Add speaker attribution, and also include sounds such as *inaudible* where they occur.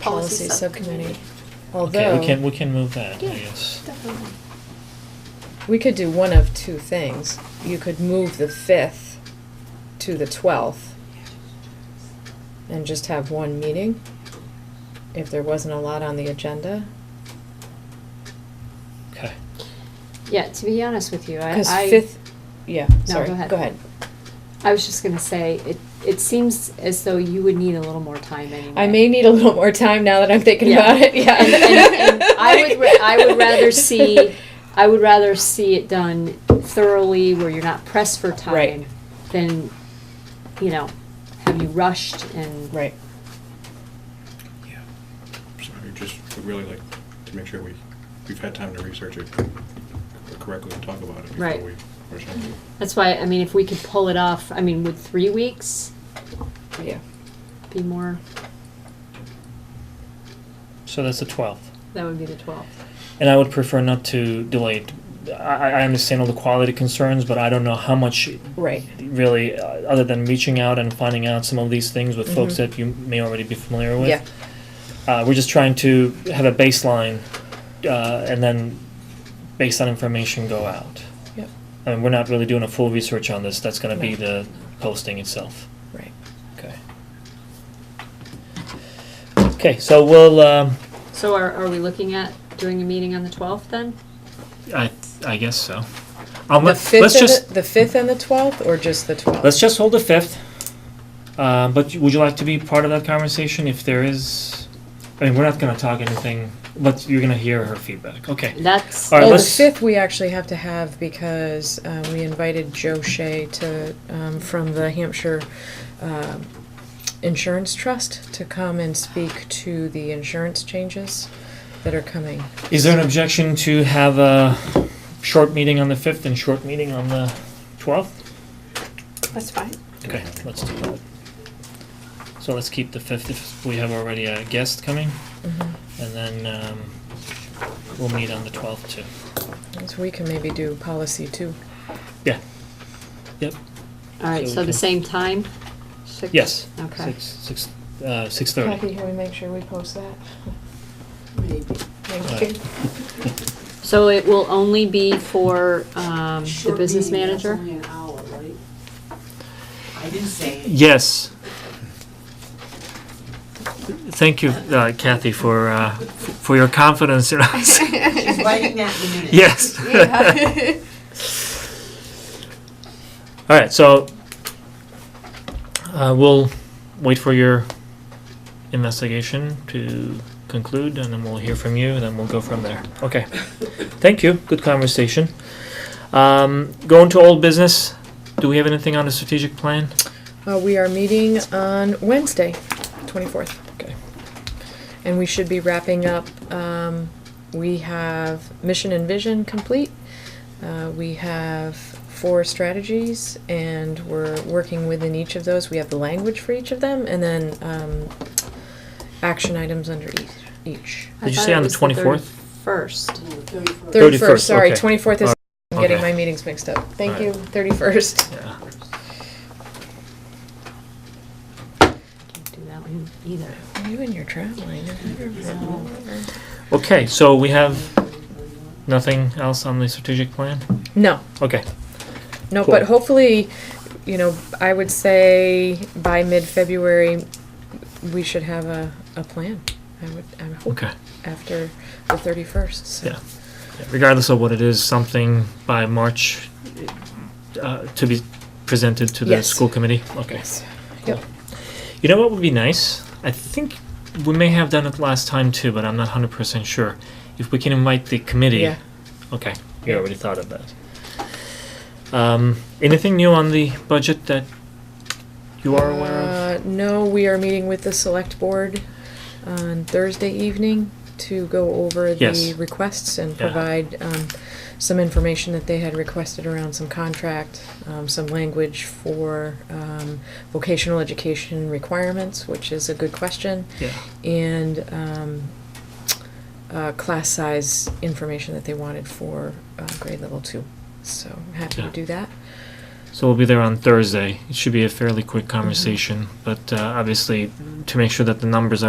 Speaker 1: Policy Subcommittee.
Speaker 2: Okay, we can,
Speaker 1: Although,
Speaker 2: we can move that, I
Speaker 1: Yeah.
Speaker 2: guess.
Speaker 3: Definitely.
Speaker 1: we could do one of two things. You could move the 5th to the 12th and just have one meeting if there wasn't a lot on the agenda.
Speaker 2: Okay.
Speaker 3: Yeah, to be honest with you, I,
Speaker 1: Because
Speaker 3: I,
Speaker 1: 5th, yeah,
Speaker 3: No,
Speaker 1: sorry,
Speaker 3: go ahead.
Speaker 1: go ahead.
Speaker 3: I was just gonna say, it, it seems as though you would need a little more time anyway.
Speaker 1: I may need a little more time now that I'm thinking
Speaker 3: Yeah.
Speaker 1: about it, yeah. *laughs*
Speaker 3: And, and, and I would, ra- I would rather see, I would rather see it done thoroughly where you're not pressed for
Speaker 1: Right.
Speaker 3: time than, you know, have you rushed and.
Speaker 1: *laughs* Right,
Speaker 4: Yeah. So I just would really like to make sure we, we've had time to research it correctly and talk about it before
Speaker 3: Right.
Speaker 4: we, or something.
Speaker 3: That's why, I mean, if we could pull it off, I mean, would three weeks
Speaker 1: yeah.
Speaker 3: be more,
Speaker 2: So that's the twelfth.
Speaker 3: that would be the twelfth.
Speaker 2: And I would prefer not to delay it. I, I understand all the quality concerns, but I don't know how much
Speaker 1: Right.
Speaker 2: really, uh, other than reaching out and finding out some of these things with folks
Speaker 1: Mhm.
Speaker 2: that you may already be familiar with.
Speaker 1: Yeah,
Speaker 2: Uh, we're just trying to have a baseline, uh, and then based on information go out.
Speaker 1: Yep.
Speaker 2: I mean, we're not really doing a full research on this. That's going to
Speaker 1: No.
Speaker 2: be the posting itself.
Speaker 1: right.
Speaker 2: Okay. Okay, so we'll. Um,
Speaker 3: So are, are we looking at doing a meeting on the twelfth then?
Speaker 2: I I guess so. Um,
Speaker 1: The
Speaker 2: let,
Speaker 1: 5th
Speaker 2: us
Speaker 1: and
Speaker 2: just
Speaker 1: the- The 5th and the 12th, or just the 12th?
Speaker 2: let's just hold the fifth. Um, but would you like to be part of that conversation if there is? I mean, we're not going to talk anything, but you're going to hear her feedback. Okay.
Speaker 3: That's,
Speaker 2: All right,
Speaker 1: Well, Oh, the
Speaker 2: let's-
Speaker 1: fifth we actually have to have because uh, we invited Joe Shea to, um, from the Hampshire um, Insurance Trust to come and speak to the insurance changes that are coming.
Speaker 2: Is there an objection to have a short meeting on the fifth and short meeting on the twelfth?
Speaker 5: That's fine. *laughs*
Speaker 2: Okay, let's do that. So let's keep the fifth if we have already a guest coming, and then um, we'll meet on the twelfth too.
Speaker 1: So we can maybe do policy too.
Speaker 3: all right,
Speaker 2: so
Speaker 3: so
Speaker 2: we
Speaker 3: the
Speaker 2: can-
Speaker 3: same time? Six-
Speaker 2: Yes.
Speaker 3: Okay.
Speaker 2: Six six uh, six thirty.
Speaker 1: can we make sure we post that?
Speaker 5: Maybe.
Speaker 1: Thank you.
Speaker 3: So it will only be for, um, the
Speaker 5: Short
Speaker 3: business
Speaker 5: meeting, that's
Speaker 3: manager?
Speaker 5: only an hour, right? I didn't say. anything.
Speaker 2: Yes. Thank you, uh, Kathy, for uh, f- for your confidence in us. *laughs*
Speaker 5: She's writing that in a minute.
Speaker 2: Yes. All right, so uh, we'll wait for your investigation to conclude, and then we'll hear from you, and then we'll go from there. Okay. Thank you. Good conversation. Um, going to old business. Do we have anything on the strategic plan?
Speaker 1: Uh, we are meeting on Wednesday, twenty-fourth.
Speaker 2: Okay.
Speaker 1: And we should be wrapping up, um, we have mission and vision complete. Uh, we have four strategies and we're working within each of those. We have the language for each of them and then, um, action items under each, each.
Speaker 3: I
Speaker 2: Did you
Speaker 3: thought
Speaker 2: say
Speaker 3: it
Speaker 2: on the
Speaker 3: was
Speaker 2: 24th?
Speaker 3: First.
Speaker 5: No, the 31st.
Speaker 2: 31st,
Speaker 1: Thirty-first, sorry,
Speaker 2: okay.
Speaker 1: twenty-fourth is,
Speaker 2: All
Speaker 1: I'm getting
Speaker 2: okay.
Speaker 1: my meetings mixed up. Thank
Speaker 2: All
Speaker 1: you,
Speaker 2: right.
Speaker 1: thirty-first.
Speaker 2: Yeah.
Speaker 3: Can't do that one either.
Speaker 1: You and your traveling. I never-
Speaker 2: Okay, so we have nothing else on the strategic plan?
Speaker 1: No,
Speaker 2: Okay.
Speaker 1: No,
Speaker 2: Cool.
Speaker 1: but hopefully, you know, I would say by mid-February, we should have a, a plan. I would, I would hope
Speaker 2: Okay.
Speaker 1: after the thirty-first, so.
Speaker 2: Yeah. Regardless of what it is, something by March uh, to be presented to the
Speaker 1: Yes.
Speaker 2: school committee? Okay.
Speaker 1: Yes.
Speaker 2: You know what would be nice? I think we may have done it last time too, but I'm not 100% sure. If we can invite the committee.
Speaker 1: Yeah,
Speaker 2: Okay, you already thought of that. Um, Anything new on the budget that you are aware of?
Speaker 1: Uh, No, we are meeting with the select board on Thursday evening to go over the
Speaker 2: Yes.
Speaker 1: requests and
Speaker 2: Yeah.
Speaker 1: provide um, some information that they had requested around some contract, um, some language for um, vocational education requirements, which is a good question,
Speaker 2: Yeah.
Speaker 1: and um, uh, class size information that they wanted for uh, grade level two. So I'm happy to
Speaker 2: Yeah.
Speaker 1: do that.
Speaker 2: So we'll be there on Thursday. It should be a fairly quick conversation, but uh, obviously, to make sure that the numbers are